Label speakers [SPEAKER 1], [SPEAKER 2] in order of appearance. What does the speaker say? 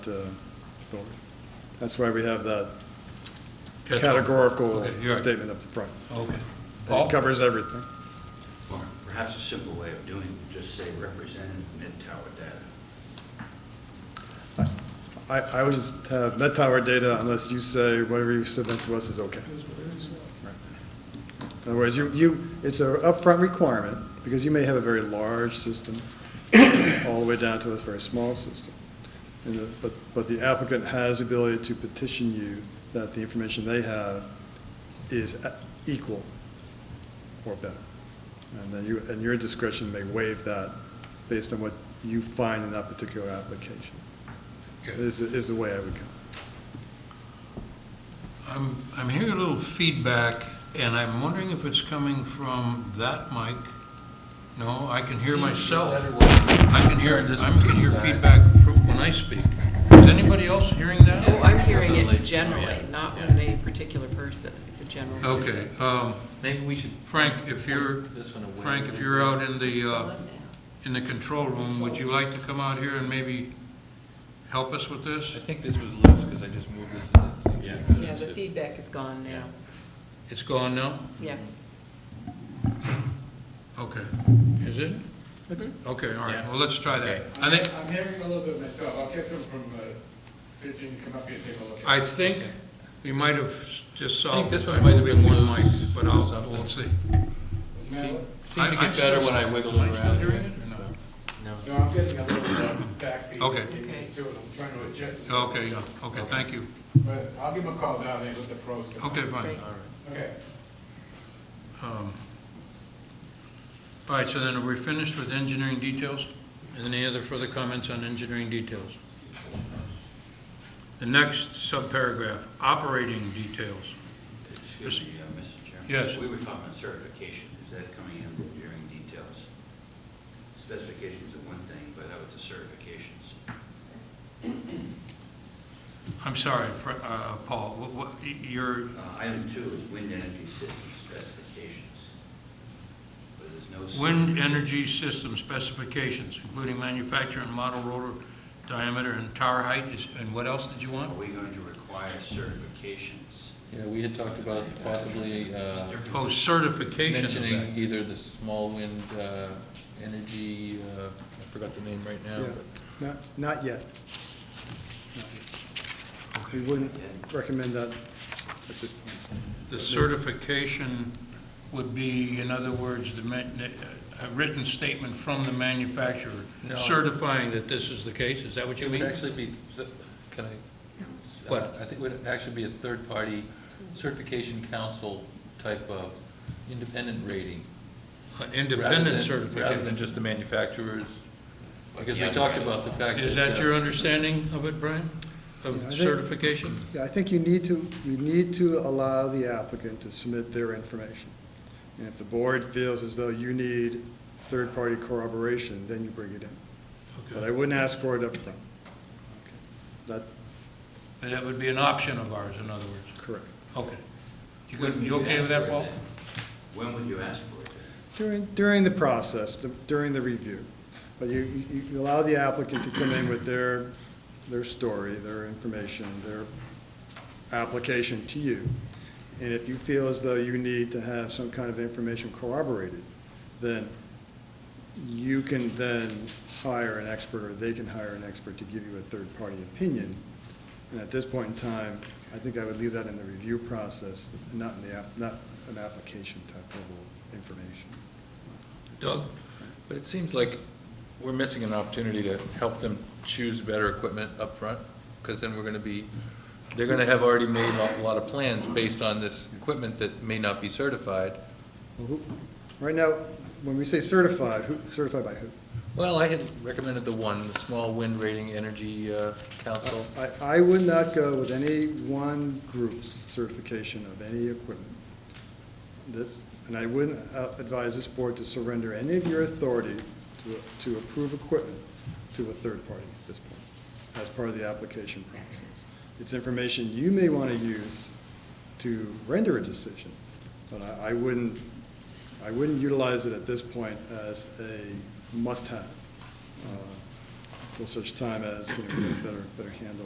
[SPEAKER 1] uh, authority. That's why we have that
[SPEAKER 2] Okay,
[SPEAKER 1] categorical
[SPEAKER 2] you're right.
[SPEAKER 1] statement up the front.
[SPEAKER 2] Okay. Paul?
[SPEAKER 1] It covers everything.
[SPEAKER 3] Perhaps a simple way of doing, it, just say representative mid-tower data.
[SPEAKER 1] I, I would just have net tower data unless you say whatever you submit to us is okay. Right. In other words, you, you, it's a upfront requirement, because you may have a very large system, all the way down to a very small system. And the, but, but the applicant has the ability to petition you that the information they have is a- equal or better. And then you, and your discretion may waive that based on what you find in that particular application
[SPEAKER 2] Good.
[SPEAKER 1] is, is the way I would go.
[SPEAKER 2] I'm, I'm hearing a little feedback, and I'm wondering if it's coming from that mic. No, I can hear myself. I can hear, I can hear feedback from when I speak. Is anybody else hearing that?
[SPEAKER 4] Oh, I'm hearing it generally, not from a particular person. It's a general.
[SPEAKER 2] Okay, um,
[SPEAKER 5] Maybe we should.
[SPEAKER 2] Frank, if you're,
[SPEAKER 5] This one away.
[SPEAKER 2] Frank, if you're out in the, uh, in the control room, would you like to come out here and maybe help us with
[SPEAKER 5] I
[SPEAKER 2] this?
[SPEAKER 5] think this was loose because I just moved this. in.
[SPEAKER 4] Yeah, the feedback is gone now.
[SPEAKER 2] It's gone now?
[SPEAKER 4] Yeah.
[SPEAKER 2] Okay. Is it? Okay, all right,
[SPEAKER 5] Yeah.
[SPEAKER 2] well, let's try that.
[SPEAKER 5] Okay.
[SPEAKER 2] I think,
[SPEAKER 6] I'm hearing a little bit myself, I'll get them from, uh, Virginia, come up here and take a look. at it.
[SPEAKER 2] I think we might have just
[SPEAKER 5] I think
[SPEAKER 2] solved.
[SPEAKER 5] this
[SPEAKER 2] it
[SPEAKER 5] one might have been
[SPEAKER 2] with
[SPEAKER 5] one
[SPEAKER 2] mic, But I'll, we'll see.
[SPEAKER 6] Now-
[SPEAKER 5] Seemed to
[SPEAKER 2] I- I'm
[SPEAKER 5] get better
[SPEAKER 2] still-
[SPEAKER 5] when I wiggled it
[SPEAKER 2] Am I still
[SPEAKER 5] around.
[SPEAKER 2] hearing it or no?
[SPEAKER 5] No.
[SPEAKER 6] No, I'm getting a little bit back feed.
[SPEAKER 2] Okay.
[SPEAKER 4] Okay.
[SPEAKER 6] To it, I'm trying to adjust this.
[SPEAKER 2] Okay, yeah, okay, thank you.
[SPEAKER 6] But I'll give them a call down there with the pros. come up.
[SPEAKER 2] Okay, fine.
[SPEAKER 4] Great.
[SPEAKER 6] Okay.
[SPEAKER 2] Um, All right, so then are we finished with engineering details? Any other further comments on engineering details? The next subparagraph, operating details.
[SPEAKER 3] Excuse me, uh, Mr. Chairman.
[SPEAKER 2] Yes.
[SPEAKER 3] We were talking about certification, is that coming in with hearing details? Specifications are one thing, but how about the certifications? Uh,
[SPEAKER 2] I'm sorry, Fr- uh, Paul, what- what, you're,
[SPEAKER 3] Uh, Item two is wind energy system specifications. But there's no. cer-
[SPEAKER 2] Wind energy system specifications, including manufacturer and model rotor diameter and tower height, is- and what else did you
[SPEAKER 3] Are
[SPEAKER 2] want?
[SPEAKER 3] we going to require certifications?
[SPEAKER 5] Yeah, we had talked about possibly
[SPEAKER 3] It's
[SPEAKER 5] uh,
[SPEAKER 3] different.
[SPEAKER 2] Oh, certification of
[SPEAKER 5] mentioning
[SPEAKER 2] that.
[SPEAKER 5] either the small wind uh, energy, uh, I forgot the name right now.
[SPEAKER 1] Yeah, not, not yet. We wouldn't recommend that at this point.
[SPEAKER 2] The certification would be, in other words, the, ma- a written statement from the manufacturer
[SPEAKER 5] No.
[SPEAKER 2] certifying that this is the case, is that what
[SPEAKER 5] but
[SPEAKER 2] you
[SPEAKER 5] It would
[SPEAKER 2] mean?
[SPEAKER 5] actually be, th- can I?
[SPEAKER 2] What?
[SPEAKER 5] I think it would actually be a third-party certification council type of independent rating.
[SPEAKER 2] An
[SPEAKER 5] rather
[SPEAKER 2] Independent
[SPEAKER 5] than- Rather than
[SPEAKER 2] certification.
[SPEAKER 5] just the manufacturers, because we
[SPEAKER 3] Yeah,
[SPEAKER 5] talked
[SPEAKER 3] but-
[SPEAKER 5] about the fact that.
[SPEAKER 2] Is that
[SPEAKER 5] uh,
[SPEAKER 2] your understanding of it, Brian? Of
[SPEAKER 1] Yeah, I think-
[SPEAKER 2] certification?
[SPEAKER 1] Yeah, I think you need to, you need to allow the applicant to submit their information. And if the board feels as though you need third-party corroboration, then you bring it in. But I
[SPEAKER 2] Okay.
[SPEAKER 1] wouldn't ask for it up front. That,
[SPEAKER 2] And that would be an option of ours, in other words.
[SPEAKER 1] correct.
[SPEAKER 2] Okay. You
[SPEAKER 3] When
[SPEAKER 2] good,
[SPEAKER 3] would
[SPEAKER 2] you okay with
[SPEAKER 3] ask for
[SPEAKER 2] that,
[SPEAKER 3] it
[SPEAKER 2] Paul?
[SPEAKER 3] then? When would you ask for it? then?
[SPEAKER 1] During, during the process, during the review. But you, you you allow the applicant to come in with their, their story, their information, their application to you. And if you feel as though you need to have some kind of information corroborated, then you can then hire an expert, or they can hire an expert to give you a third-party opinion. And at this point in time, I think I would leave that in the review process, and not in the, app not an application type level information.
[SPEAKER 5] Doug? But it seems like we're missing an opportunity to help them choose better equipment up front, because then we're gonna be, they're gonna have already made a lot of plans based on this equipment that may not be certified.
[SPEAKER 1] Well, who- Right now, when we say certified, who, certified by who?
[SPEAKER 5] Well, I had recommended the one, the Small Wind Rating Energy uh, Council.
[SPEAKER 1] I, I would not go with any one group's certification of any equipment. This, and I wouldn't uh, advise this board to surrender any of your authority to, to approve equipment to a third party at this point, as part of the application process. It's information you may want to use to render a decision, but I, I wouldn't, I wouldn't utilize it at this point as a must-have uh, to until such time as, you know, we get a better, better handle